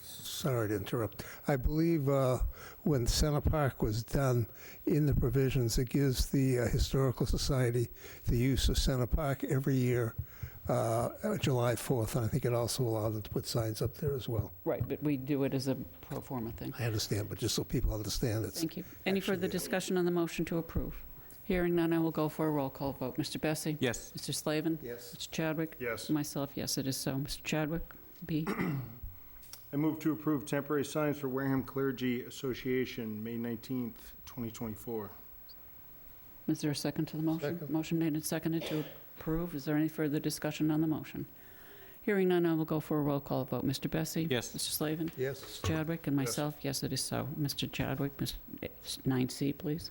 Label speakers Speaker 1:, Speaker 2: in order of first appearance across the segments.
Speaker 1: sorry to interrupt. I believe uh, when Center Park was done, in the provisions, it gives the uh, Historical Society the use of Center Park every year, uh, uh, July 4th, and I think it also allowed them to put signs up there as well.
Speaker 2: Right, but we do it as a pro forma thing.
Speaker 1: I understand, but just so people understand, it's,
Speaker 2: Thank you. Any further
Speaker 1: Actually-
Speaker 2: discussion on the motion to approve? Hearing none, I will go for a roll call vote. Mr. Bessie?
Speaker 3: Yes.
Speaker 2: Mr. Slavin?
Speaker 1: yes,
Speaker 2: Mr. Chadwick?
Speaker 4: Yes.
Speaker 2: Myself, yes, it is so. Mr. Chadwick, B.
Speaker 4: I move to approve temporary signs for Wareham Clergy Association, May 19th, 2024.
Speaker 2: Is there a second to the motion?
Speaker 1: Second.
Speaker 2: Motion made and seconded to approve. Is there any further discussion on the motion? Hearing none, I will go for a roll call vote. Mr. Bessie?
Speaker 3: Yes.
Speaker 2: Mr. Slavin?
Speaker 1: yes.
Speaker 2: Mr. Chadwick and myself, yes, it is so. Mr. Chadwick, Ms. 9C, please.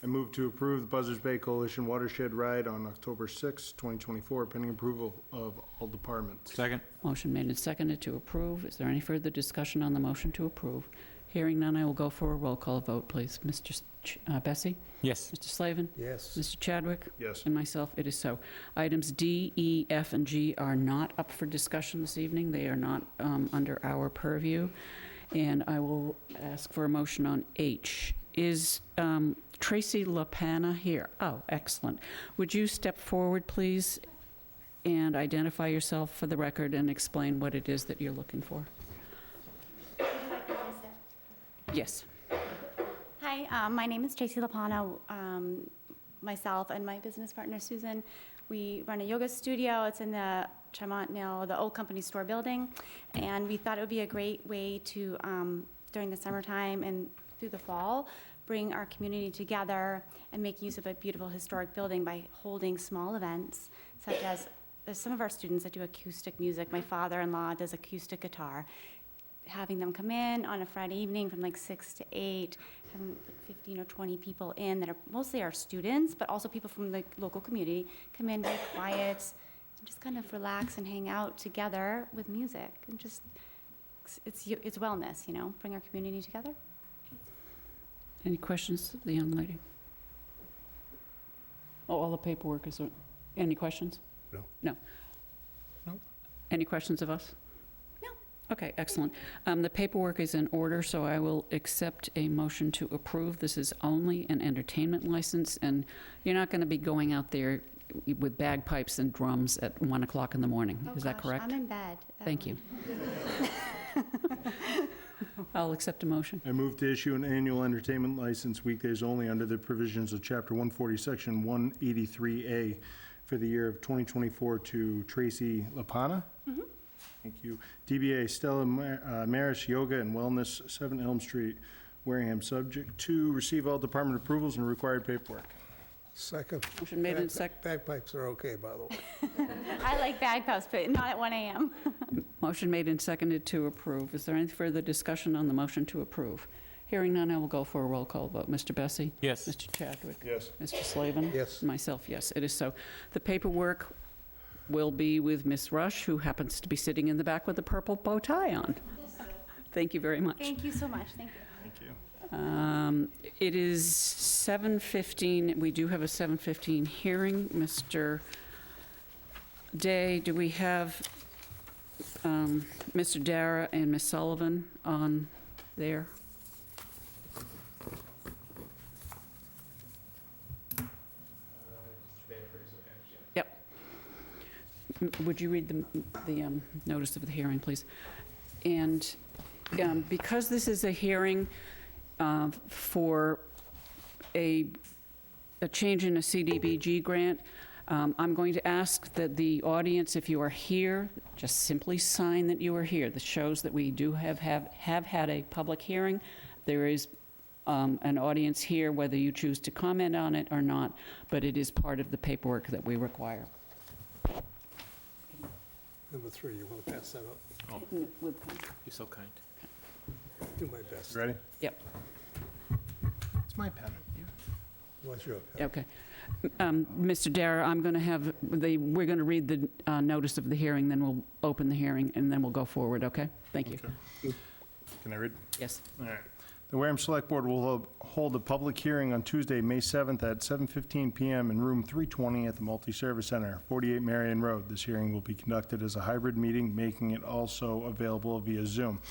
Speaker 4: I move to approve the Buzzards Bay Coalition Watershed Ride on October 6th, 2024, pending approval of all departments.
Speaker 3: Second.
Speaker 2: Motion made and seconded to approve. Is there any further discussion on the motion to approve? Hearing none, I will go for a roll call vote, please. Mr. S- Ch- uh, Bessie?
Speaker 3: Yes.
Speaker 2: Mr. Slavin?
Speaker 1: Yes.
Speaker 2: Mr. Chadwick?
Speaker 4: Yes.
Speaker 2: And myself, it is so. Items D, E, F, and G are not up for discussion this evening. They are not um, under our purview. And I will ask for a motion on H. Is um, Tracy LaPana here? Oh, excellent. Would you step forward, please, and identify yourself for the record and explain what it is that you're looking for? Yes.
Speaker 5: Hi, um, my name is Tracy Lapano. Um, Myself and my business partner Susan, we run a yoga studio. It's in the Tremont now, the old company store building. And we thought it would be a great way to, um, during the summertime and through the fall, bring our community together and make use of a beautiful historic building by holding small events such as, there's some of our students that do acoustic music. My father-in-law does acoustic guitar having them come in on a Friday evening from like six to eight, having like fifteen or twenty people in that are mostly our students, but also people from the local community, come in, be quiet, and just kind of relax and hang out together with music, and just, it's- it's, y- it's wellness, you know, bring our community together.
Speaker 2: Any questions of the young lady? Oh, all the paperwork is, any questions?
Speaker 1: No.
Speaker 2: No?
Speaker 1: No.
Speaker 2: Any questions of us?
Speaker 5: No.
Speaker 2: Okay, excellent. Um, The paperwork is in order, so I will accept a motion to approve. This is only an entertainment license, and you're not going to be going out there with bagpipes and drums at 1 o'clock in the morning.
Speaker 5: Oh,
Speaker 2: Is that
Speaker 5: gosh,
Speaker 2: correct?
Speaker 5: I'm in bed.
Speaker 2: Thank you. I'll accept a motion.
Speaker 4: I move to issue an annual entertainment license weekdays only under the provisions of Chapter 140, Section 183A for the year of 2024 to Tracy Lapana. Thank you. DBA Stella Mar- uh, Maris Yoga and Wellness, 7 Elm Street, Wareham. Subject to receive all department approvals and required paperwork.
Speaker 1: Second.
Speaker 2: Motion made and sec,
Speaker 1: Bagpipes are okay, by the way.
Speaker 5: I like bagpipes, but not at one AM.
Speaker 2: Motion made and seconded to approve. Is there any further discussion on the motion to approve? Hearing none, I will go for a roll call vote. Mr. Bessie?
Speaker 3: Yes.
Speaker 2: Mr. Chadwick?
Speaker 4: Yes.
Speaker 2: Mr. Slavin?
Speaker 1: Yes.
Speaker 2: Myself, yes, it is so. The paperwork will be with Ms. Rush, who happens to be sitting in the back with a purple bow tie on. Thank you very much.
Speaker 5: Thank you so much, thank you.
Speaker 4: Thank you.
Speaker 2: Um, It is 7:15, we do have a 7:15 hearing. Mr. Day, do we have um, Mr. Dara and Ms. Sullivan on there? Yep. M- Would you read the the um, notice of the hearing, please? And um, because this is a hearing uh, for a, a change in a CDBG grant. Um, I'm going to ask that the audience, if you are here, just simply sign that you are here. This shows that we do have, have, have had a public hearing. There is um, an audience here, whether you choose to comment on it or not, but it is part of the paperwork that we require.
Speaker 1: Number three, you want to pass that up?
Speaker 3: You're so kind.
Speaker 1: Do my best.
Speaker 4: Ready?
Speaker 2: Yep.
Speaker 4: It's my pen.
Speaker 1: What's your?
Speaker 2: Okay. Um, Mr. Dara, I'm going to have, they, we're going to read the uh, notice of the hearing, then we'll open the hearing, and then we'll go forward, okay? Thank you.
Speaker 4: Can I read?
Speaker 2: Yes.
Speaker 4: All right. The Wareham Select Board will ho- hold a public hearing on Tuesday, May 7th at 7:15 PM in Room 320 at the Multi-Service Center, 48 Marion Road. This hearing will be conducted as a hybrid meeting, making it also available via Zoom.